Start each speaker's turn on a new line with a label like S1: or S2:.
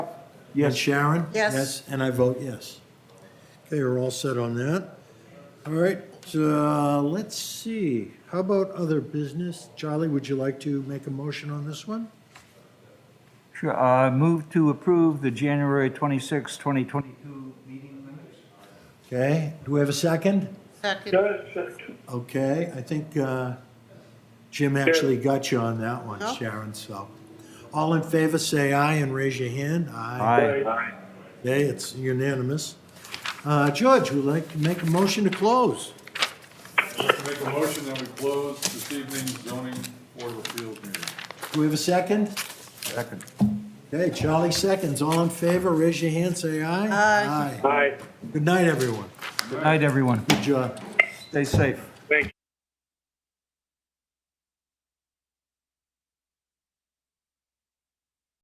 S1: Yes. Sharon?
S2: Yes.
S1: And I vote yes. Okay, we're all set on that. All right, uh, let's see. How about other business? Charlie, would you like to make a motion on this one?
S3: Sure, uh, move to approve the January 26, 2022 meeting minutes.
S1: Okay, do we have a second?
S2: Second,
S4: Second.
S1: Okay, I think uh, Jim actually got you on that one,
S2: No.
S1: Sharon, so. All in favor, say aye and raise your hand. Aye.
S3: Aye.
S1: Okay, it's unanimous. Uh, George, would like to make a motion to close?
S5: I'd like to make a motion that we close this evening's zoning board of appeals meeting.
S1: Do we have a second?
S3: Second.
S1: Okay, Charlie seconds. All in favor, raise your hand, say aye.
S2: Aye.
S4: Aye,
S1: Good night, everyone.
S3: Good night, everyone.
S1: Good job.
S3: Stay safe.
S4: thank you.